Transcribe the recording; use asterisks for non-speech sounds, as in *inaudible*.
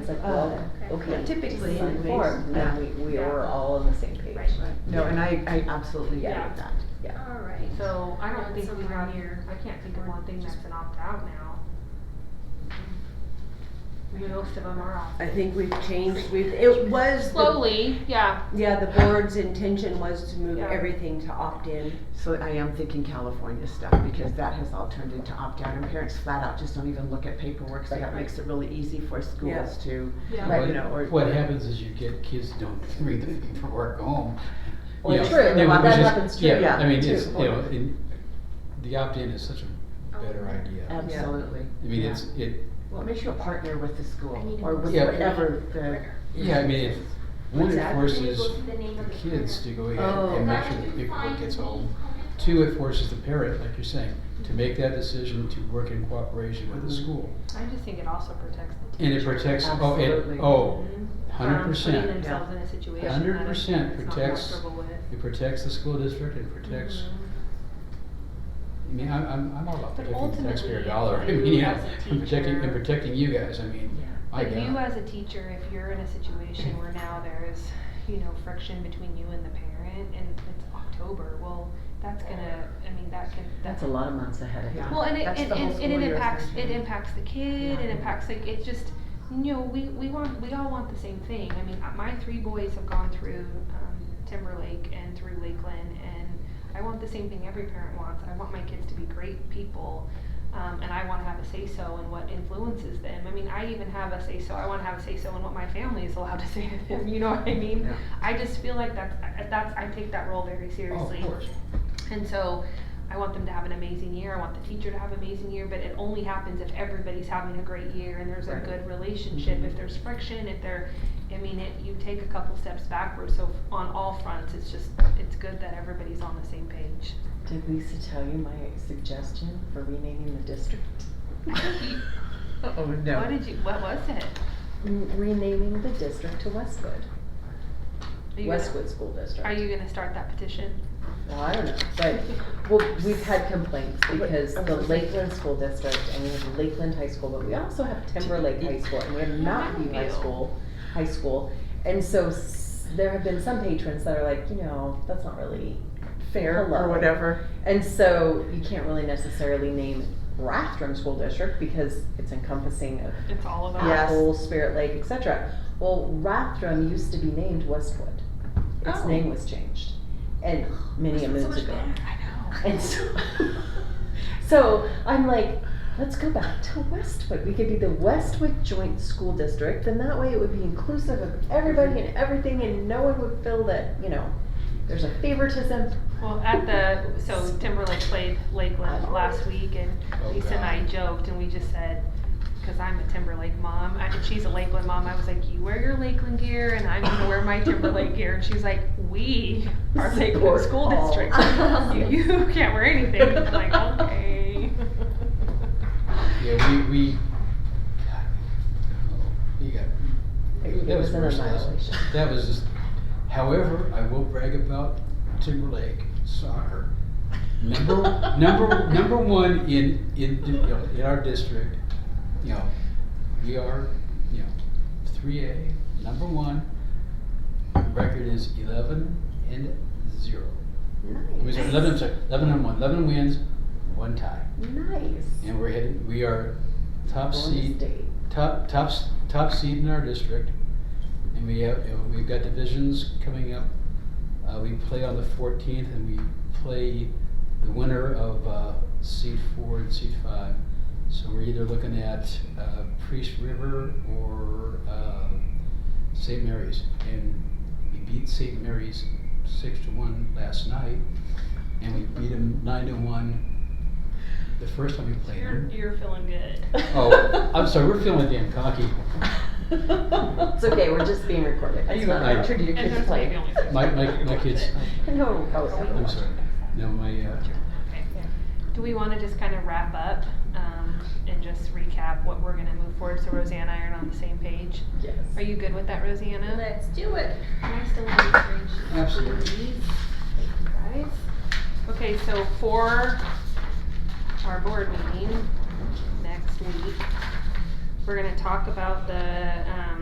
It's like, well, Oh, okay. okay. Typically, Some anyways, form, yeah. then we, we Yeah. were all on the same page. Right. No, and I, I absolutely agree Yeah. with that, yeah. All right. So I Not don't think we somewhere have, near I can't think of or one thing just- that's an opt-out now. I mean, Most of them are opt. I think we've changed, we've, it was. the- Slowly, yeah, Yeah, the board's intention was to move Yeah. everything to opt-in. So I am thinking California stuff, because that has all turned into opt-out, and parents flat out just don't even look at paperwork, so that makes it really easy for Yeah. schools to, yeah. Right. you know, or- What happens is you get kids don't *laughs* read the paperwork home. Well, You know, true, they that would just- happens too, yeah, I mean, it's, too. you know, in, the opt-in is such a better Oh, idea. absolutely. I mean, yeah. it's, it, Well, it makes you a partner with the I need school, a or with Yeah. whatever the. yeah, I mean, it, one, it Exactly. forces Go to the name of the kids to parent. go Oh. ahead and make sure that paperwork gets home. Two, it forces the parent, like you're saying, to make that decision to work in cooperation with Mhm. the Mm-hmm. school. I just think it also protects the And teacher. it protects, oh, Absolutely. it, oh, Mhm. Um, hundred From percent. Putting themselves in a situation that 100% it's not protects- comfortable with. Mm-hmm. It protects the school district, it protects, Mm-hmm. I mean, I'm, I'm, I'm all about But protecting the ultimately, taxpayer if dollar, I you mean, yeah, as a I'm protecting, teacher- and protecting you guys, I mean, my But you God. as a teacher, if you're in a situation where now there's, you know, friction between you and the parent and it's October, well, that's gonna, I mean, that can, That's that's a lot of months ahead of Yeah. you. Well, and it, That's and, the whole and, and school it year impacts, it essentially. impacts the kid, it Yeah. impacts, like, it's just, you know, we, we want, we all want the same thing. I mean, uh, my three boys have gone through, um, Timberlake and through Lakeland, and I want the same thing every parent wants. I want my kids to be great people, um, and I wanna have a say-so in what influences them. I mean, I even have a say-so, I wanna have a say-so in what my family is allowed to say to them, you know what I mean? Yeah. I just feel like that's, I- that's, I take that role very Oh, seriously. of course. And so I want them to have an amazing year. I want the teacher to have an amazing year, but it only happens if everybody's having a great year and there's a Right. good relationship. If there's friction, if there, I mean, it, you take a couple steps backwards. So on all fronts, it's just, it's good that everybody's on the same page. Did Lisa tell you my suggestion for renaming the district? Oh, no. What did you, what was it? Mm, Renaming the district to Westwood, Are you gonna- Westwood School District. Are you gonna start that petition? Well, I don't know, but, well, we've had complaints because I'm the so sorry. oh, Lakeland School District, and we have Lakeland High School, but we also have Timberlake High School, and we have Mountain View High Mountain View. School, high school. And so s- there have been some patrons that are like, you know, that's not really Fair or Hello. whatever. And so you can't really necessarily name Rathdrum School District because it's encompassing of It's all about. Yeah. Yes. Apple, Spirit Lake, etc. Well, Rathdrum used to be named Westwood. Its Oh. name was changed, and many a So moons much ago. better. I know. And so, *laughs* so I'm like, let's go back to Westwood. We could be the Westwood Joint School District, and that way it would be inclusive of everybody and everything, and no one would feel that you know there's a favoritism. Well, at the, so Timberlake played Lakeland last week and Oh, Lisa and I joked and we just said, cause I'm a Timberlake mom, I- and she's a Lakeland mom, I was like, you wear your Lakeland gear and I'm gonna wear my Timberlake gear. And she's like, we are Lakeland Sport School ball." District. *laughs* You you can't wear anything. I'm like, okay. Yeah, we, we, God, I don't know. you got, It, that was was an merciless. annihilation. That was just, however, I will brag about Timberlake soccer. Number, number, number one in, in, you know, in our district, you know, we are, you know, three A, number one. Record is eleven and zero. It *laughs* was Nice. eleven, I'm sorry, eleven and one, eleven wins, one tie. Nice. And we're headed, we are top Bonus seed, date. top, top, s- top seed in our district. And we have, you know, we've got divisions coming up. Uh, we play on the fourteenth and we play the winner of, uh, seed four and seed five. So we're either looking at, uh, Priest River or, um, St. Mary's. And we beat St. Mary's six to one last night. And we beat them nine to one the first time we played them. You're, you're feeling good. Oh, I'm sorry, we're feeling damn cocky. It's okay, we're just being recorded. Are It's you not I- allowed to do your And kids there's play? maybe only six My, people my, my watch kids, it. No, oh, it's not I'm sorry, no, my, uh, Okay. Do we wanna just kind of wrap up, um, and just recap what we're gonna move forward, so Roseanne and I are on the same page? Yes. Are you good with that, Rosanna? Let's do it. I still want to reach. absolutely. Guys? Okay, so for our board meeting next week, We're gonna talk about the, um,